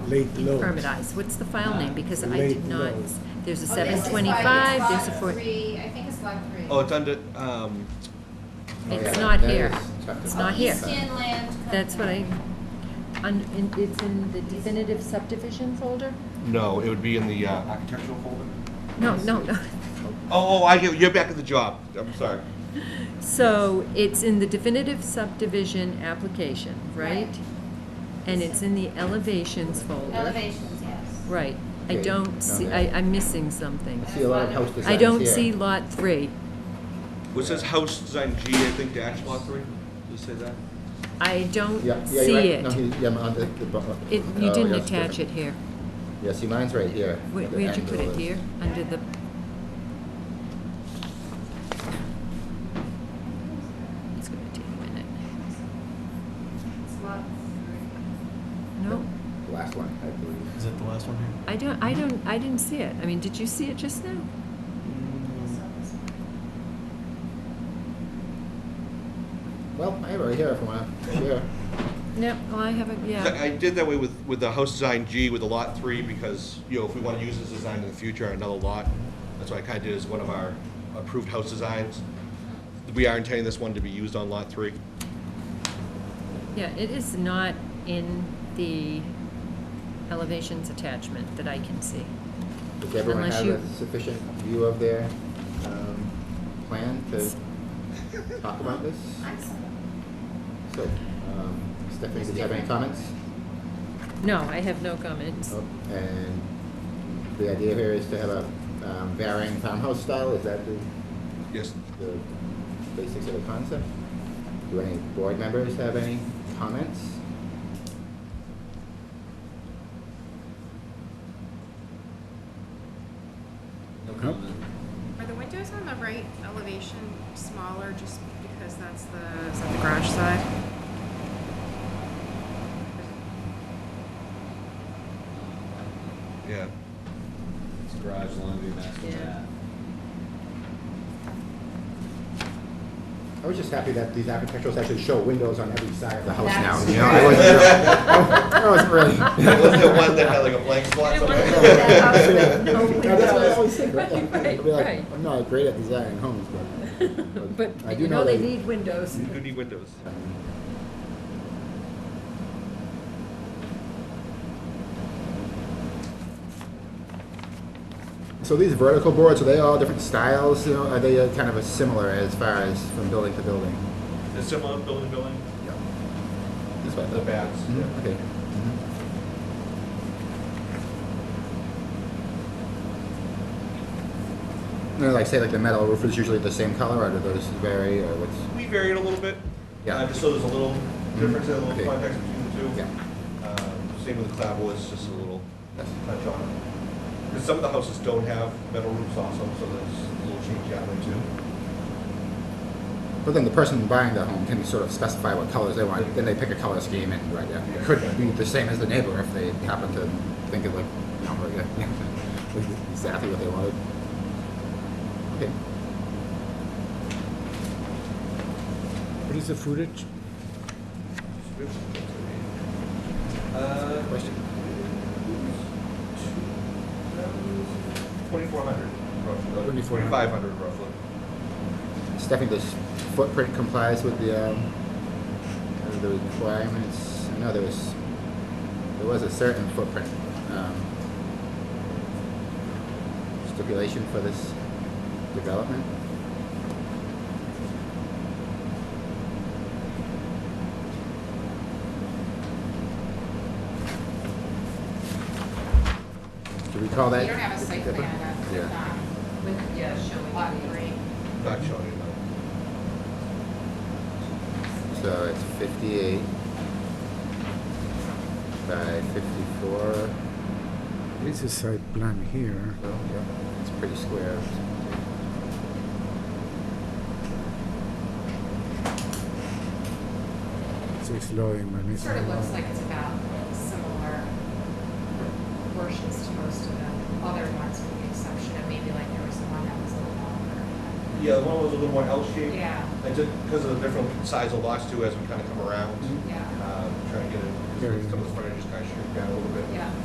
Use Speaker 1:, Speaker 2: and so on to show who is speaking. Speaker 1: Late loads.
Speaker 2: permitize. What's the file name? Because I
Speaker 1: Late
Speaker 2: did not,
Speaker 1: loads.
Speaker 2: there's a
Speaker 3: Oh, this is
Speaker 2: seven twenty-five,
Speaker 3: like
Speaker 2: there's a
Speaker 3: lot
Speaker 2: four,
Speaker 3: Three, I think it's lot three.
Speaker 4: Oh, it's under, um,
Speaker 2: it's
Speaker 5: Oh, Yeah,
Speaker 2: not
Speaker 5: that
Speaker 2: here.
Speaker 5: is chapter
Speaker 2: It's
Speaker 3: Oh,
Speaker 5: five.
Speaker 2: not here.
Speaker 3: East Inland.
Speaker 2: That's what I,
Speaker 3: Company.
Speaker 2: un- in- it's in the definitive subdivision folder?
Speaker 4: no, it would be in the uh, architectural folder.
Speaker 2: No, no, no.
Speaker 4: Oh, oh, I get, you're back at the job, I'm sorry.
Speaker 2: So it's in the definitive subdivision application, right?
Speaker 3: Right.
Speaker 2: And it's in the elevations folder.
Speaker 3: Elevations, yes.
Speaker 2: Right. I
Speaker 5: Okay,
Speaker 2: don't see, I,
Speaker 5: okay.
Speaker 2: I'm missing something.
Speaker 5: I see a lot of house designs
Speaker 2: I don't
Speaker 5: here.
Speaker 2: see lot three.
Speaker 4: Which says house design G, I think dash lot three, does it say that?
Speaker 2: I don't
Speaker 5: Yeah, yeah,
Speaker 2: see
Speaker 5: you're right. No,
Speaker 2: it.
Speaker 5: he- yeah, I'm on the- the bu-
Speaker 2: It,
Speaker 5: oh,
Speaker 2: you didn't
Speaker 5: yes,
Speaker 2: attach it
Speaker 5: different.
Speaker 2: here.
Speaker 5: Yeah, see, mine's right here.
Speaker 2: Where,
Speaker 5: the
Speaker 2: where'd you put
Speaker 5: angle
Speaker 2: it
Speaker 5: is-
Speaker 2: here? Under the, it's gonna take a minute.
Speaker 3: It's lot three.
Speaker 2: No,
Speaker 5: The Last line, I believe.
Speaker 6: Is that the last one here?
Speaker 2: I don't, I don't, I didn't see it. I mean, did you see it just now?
Speaker 3: So this one.
Speaker 5: Well, I have it right here if you want to share.
Speaker 2: No, well, I haven't, yeah.
Speaker 4: I did that way with, with the house design G with the lot three, because, you know, if we wanna use this design in the future on another lot, that's what I kinda did as one of our approved house designs. We are intending this one to be used on lot three.
Speaker 2: Yeah, it is not in the elevations attachment that I can see.
Speaker 5: Does everyone
Speaker 2: Unless
Speaker 5: have
Speaker 2: you-
Speaker 5: a sufficient view of their um, plan to talk about this?
Speaker 3: I'm sorry.
Speaker 5: So, um, Stephanie, did you have any comments?
Speaker 2: No, I have no comments.
Speaker 5: Oh, And the idea here is to have a um, varying farmhouse style, is that the,
Speaker 4: Yes,
Speaker 5: the basics of the concept? Do any board members have any comments?
Speaker 7: Are the windows on the right elevation smaller just because that's the, is that the garage side?
Speaker 4: yeah.
Speaker 8: It's garage laundry master
Speaker 2: Yeah.
Speaker 8: bath.
Speaker 5: I was just happy that these architecturals actually show windows on every side of the house now,
Speaker 3: That's
Speaker 5: you know, I wasn't, I wasn't really.
Speaker 4: Was there one that had like a blank spot somewhere?
Speaker 5: No, That's what I always think, right? I'll be like,
Speaker 2: right.
Speaker 5: I'm not great at designing homes, but.
Speaker 2: But
Speaker 5: I do
Speaker 2: you know they
Speaker 5: that-
Speaker 2: need windows.
Speaker 4: You do need windows.
Speaker 5: So these vertical boards, are they all different styles, you know, are they uh, kind of a similar as far as from building to building?
Speaker 4: Is similar building building?
Speaker 5: Yeah. That's what I
Speaker 4: The
Speaker 5: thought.
Speaker 4: backs, yeah.
Speaker 5: Mhm, Okay. You know, like say like the metal roof is usually the same color, or do those vary, or what's?
Speaker 4: We varied a little bit.
Speaker 5: Yeah. Mm-hmm.
Speaker 4: Uh, Just so there's a little difference, a
Speaker 5: Okay.
Speaker 4: little context between the two.
Speaker 5: Yeah.
Speaker 4: Um, Same with the clapboard, it's just a little
Speaker 5: Yes.
Speaker 4: touch on it. Because some of the houses don't have metal roofs also, so there's a little change out there too.
Speaker 5: But then the person buying the home can sort of specify what colors they want. Then they pick a color scheme and right, yeah. It could be the same as the neighbor if they happen to think it like, you know, like, uh, exactly what they wanted. Okay.
Speaker 1: What is the footage?
Speaker 4: Uh,
Speaker 5: Question.
Speaker 4: Twenty-four hundred roughly.
Speaker 5: 2400.
Speaker 4: Twenty-five hundred roughly.
Speaker 5: Stephanie, this footprint complies with the, um, uh, the requirements? I know there was, there was a certain footprint, um, stipulation for this development. Do we call that?
Speaker 3: You don't have a site plan that's
Speaker 5: Yeah.
Speaker 3: not
Speaker 2: With, yeah, showing.
Speaker 3: lot three.
Speaker 4: Not showing it though.
Speaker 5: So it's fifty-eight by fifty-four.
Speaker 1: This is site plan here.
Speaker 5: Well, yeah, it's pretty square.
Speaker 1: So it's low in my
Speaker 3: It
Speaker 1: next
Speaker 3: Sort of
Speaker 1: one.
Speaker 3: looks like it's about similar proportions to most of the other ones, with the exception of maybe like there was one that was a little longer.
Speaker 4: Yeah, the one was a little more L-shaped.
Speaker 3: Yeah.
Speaker 4: I took, because of the different size of lots too, as we kind of come around,
Speaker 3: Yeah,
Speaker 4: um, trying to get it,
Speaker 1: Very
Speaker 4: some of the frontage is kind of shrink down a little bit.
Speaker 3: yeah.